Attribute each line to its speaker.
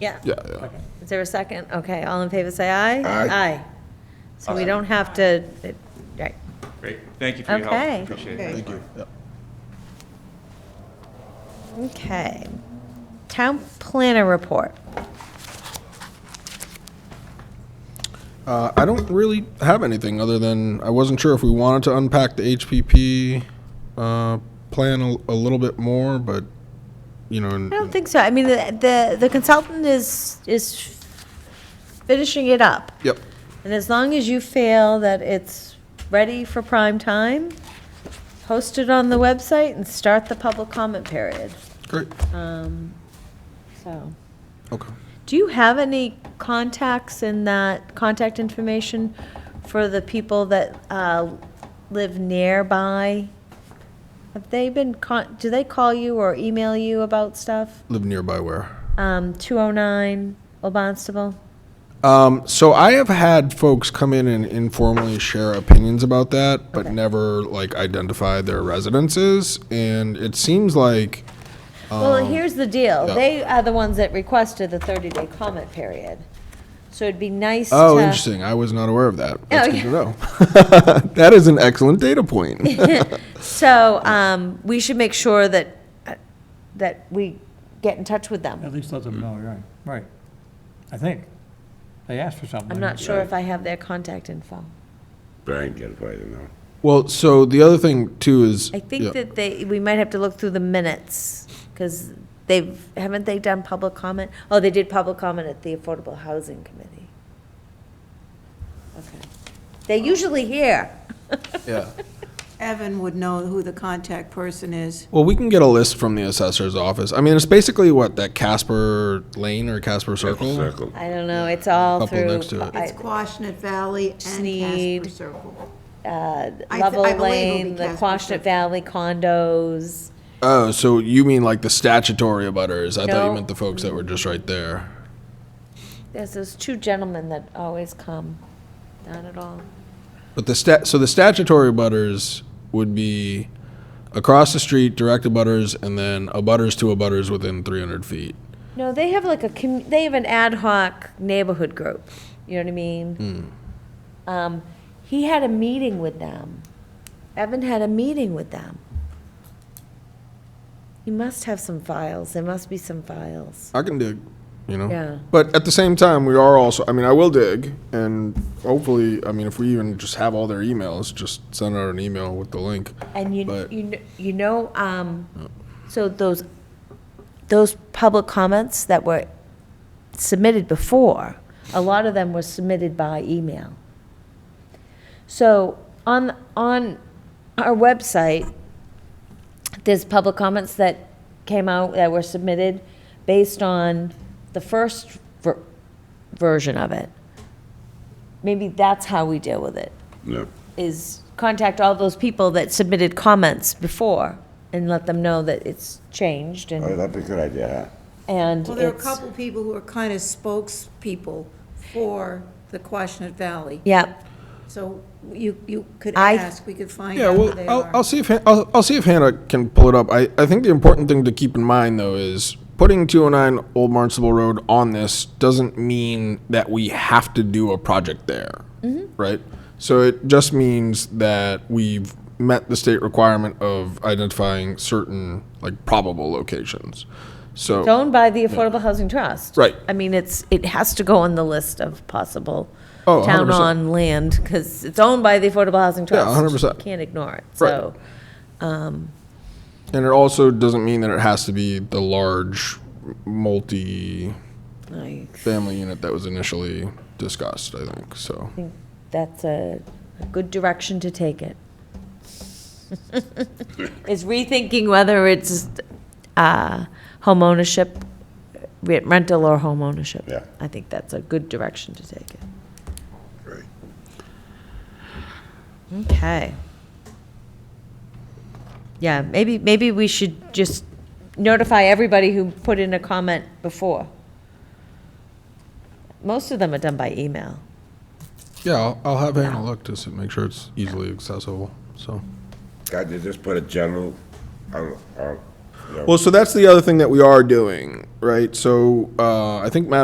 Speaker 1: Yeah.
Speaker 2: Yeah, yeah.
Speaker 1: Is there a second? Okay, all in favor, say aye.
Speaker 2: Aye.
Speaker 1: So we don't have to, it- right.
Speaker 3: Great, thank you for your
Speaker 1: Okay.
Speaker 3: help, appreciate it.
Speaker 2: Thank you. Yeah.
Speaker 1: Okay. Town planner report.
Speaker 2: Uh, I don't really have anything other than I wasn't sure if we wanted to unpack the HPP uh, plan a, a little bit more, but you know, and,
Speaker 1: I don't think so. I mean, the- the, the consultant is, is finishing it up.
Speaker 2: yep,
Speaker 1: And as long as you feel that it's ready for prime time, post it on the website and start the public comment period. Um,
Speaker 2: great,
Speaker 1: So,
Speaker 2: okay.
Speaker 1: do you have any contacts in that, contact information for the people that uh, live nearby? Have they been, con? do they call you or email you about stuff?
Speaker 2: Live nearby where?
Speaker 1: Um, 209 Old Barnstable?
Speaker 2: Um, so I have had folks come in and informally share opinions about that, but
Speaker 1: Okay.
Speaker 2: never like identify their residences, and it seems like
Speaker 1: Well, here's the deal.
Speaker 2: Um, yeah.
Speaker 1: They are the ones that requested the 30-day comment period. So it'd be nice to.
Speaker 2: oh, interesting. I was not aware of that. That's
Speaker 1: Oh,
Speaker 2: good to know. that is an excellent data point.
Speaker 1: So um, we should make sure that, uh, that we get in touch with them.
Speaker 4: At least let them know, right, right. I think. They asked for something.
Speaker 1: I'm not sure if I have their contact info.
Speaker 5: Brian can probably know.
Speaker 2: Well, so the other thing too is
Speaker 1: I
Speaker 2: yeah.
Speaker 1: think that they, we might have to look through the minutes, because they've, haven't they done public comment? Oh, they did public comment at the Affordable Housing Committee. Okay. They're
Speaker 2: Oh.
Speaker 1: usually here.
Speaker 2: yeah.
Speaker 6: Evan would know who the contact person is.
Speaker 2: Well, we can get a list from the assessor's office. I mean, it's basically what that Casper Lane or Casper Circle.
Speaker 5: Circle.
Speaker 1: I don't know, it's all
Speaker 2: Couple
Speaker 1: through.
Speaker 2: next to it.
Speaker 1: I-
Speaker 6: It's Quashnet Valley and
Speaker 1: Sneed.
Speaker 6: Casper Circle. I th- I
Speaker 1: Level
Speaker 6: believe it'll
Speaker 1: uh, Lane,
Speaker 6: be
Speaker 1: the
Speaker 6: Casper
Speaker 1: Quashnet
Speaker 6: Circle.
Speaker 1: Valley condos.
Speaker 2: Oh, so you mean like the statutory abutters? I thought you
Speaker 1: No.
Speaker 2: meant the folks that were just right there.
Speaker 1: There's those two gentlemen that always come. Not at all.
Speaker 2: But the stat, so the statutory abutters would be across the street, direct abutters, and then abutters to abutters within 300 feet.
Speaker 1: No, they have like a, commu- they have an ad hoc neighborhood group. You know what I mean? Um, he had a meeting with them. Evan had a meeting with them. He must have some files. There must be some files.
Speaker 2: I can dig, you know.
Speaker 1: Yeah.
Speaker 2: But at the same time, we are also. I mean, I will dig, and hopefully, I mean, if we even just have all their emails, just send out an email with the link.
Speaker 1: And you,
Speaker 2: But-
Speaker 1: you, kn- you know, um, so those, those public comments that were submitted before, a lot of them were submitted by email. So on, on our website, there's public comments that came out, that were submitted based on the first ver- version of it. Maybe that's how we deal with it
Speaker 5: No.
Speaker 1: is contact all those people that submitted comments before and let them know that it's changed
Speaker 5: Oh,
Speaker 1: and,
Speaker 5: that'd be a good idea, huh?
Speaker 1: and
Speaker 6: Well, there are a
Speaker 1: it's,
Speaker 6: couple people who are kind of spokespeople for the Quashnet Valley.
Speaker 1: yeah.
Speaker 6: So you, you could
Speaker 1: I-
Speaker 6: ask, we could find
Speaker 2: Yeah,
Speaker 6: out who
Speaker 2: well,
Speaker 6: they
Speaker 2: I'll, I'll
Speaker 6: are.
Speaker 2: see if Han- I'll, I'll see if Hannah can pull it up. I, I think the important thing to keep in mind though is putting 209 Old Barnstable Road on this doesn't mean that we have to do a project there,
Speaker 6: Mm-hmm.
Speaker 2: right? So it just means that we've met the state requirement of identifying certain like probable locations. So
Speaker 1: It's owned by the Affordable Housing Trust.
Speaker 2: Right.
Speaker 1: I mean, it's, it has to go on the list of possible
Speaker 2: Oh, 100%.
Speaker 1: town on land because it's owned by the Affordable Housing Trust.
Speaker 2: 100%.
Speaker 1: You Can't ignore it,
Speaker 2: Right.
Speaker 1: so.
Speaker 2: and it also doesn't mean that it has to be the large multi-family
Speaker 1: I
Speaker 2: unit that was initially discussed. I think so.
Speaker 1: think that's a, a good direction to take it. Is rethinking whether it's, uh, homeownership, re- rental or homeownership.
Speaker 5: Yeah.
Speaker 1: I think that's a good direction to take it.
Speaker 5: Great.
Speaker 1: Okay. Yeah, maybe, maybe we should just notify everybody who put in a comment before. Most of them are done by email.
Speaker 2: Yeah, I'll, I'll have Anna look to s- make sure it's easily accessible, so.
Speaker 5: God, uh, you just put a general, on, on
Speaker 2: Well, so that's the other thing that we are doing, right? So uh, I think Matt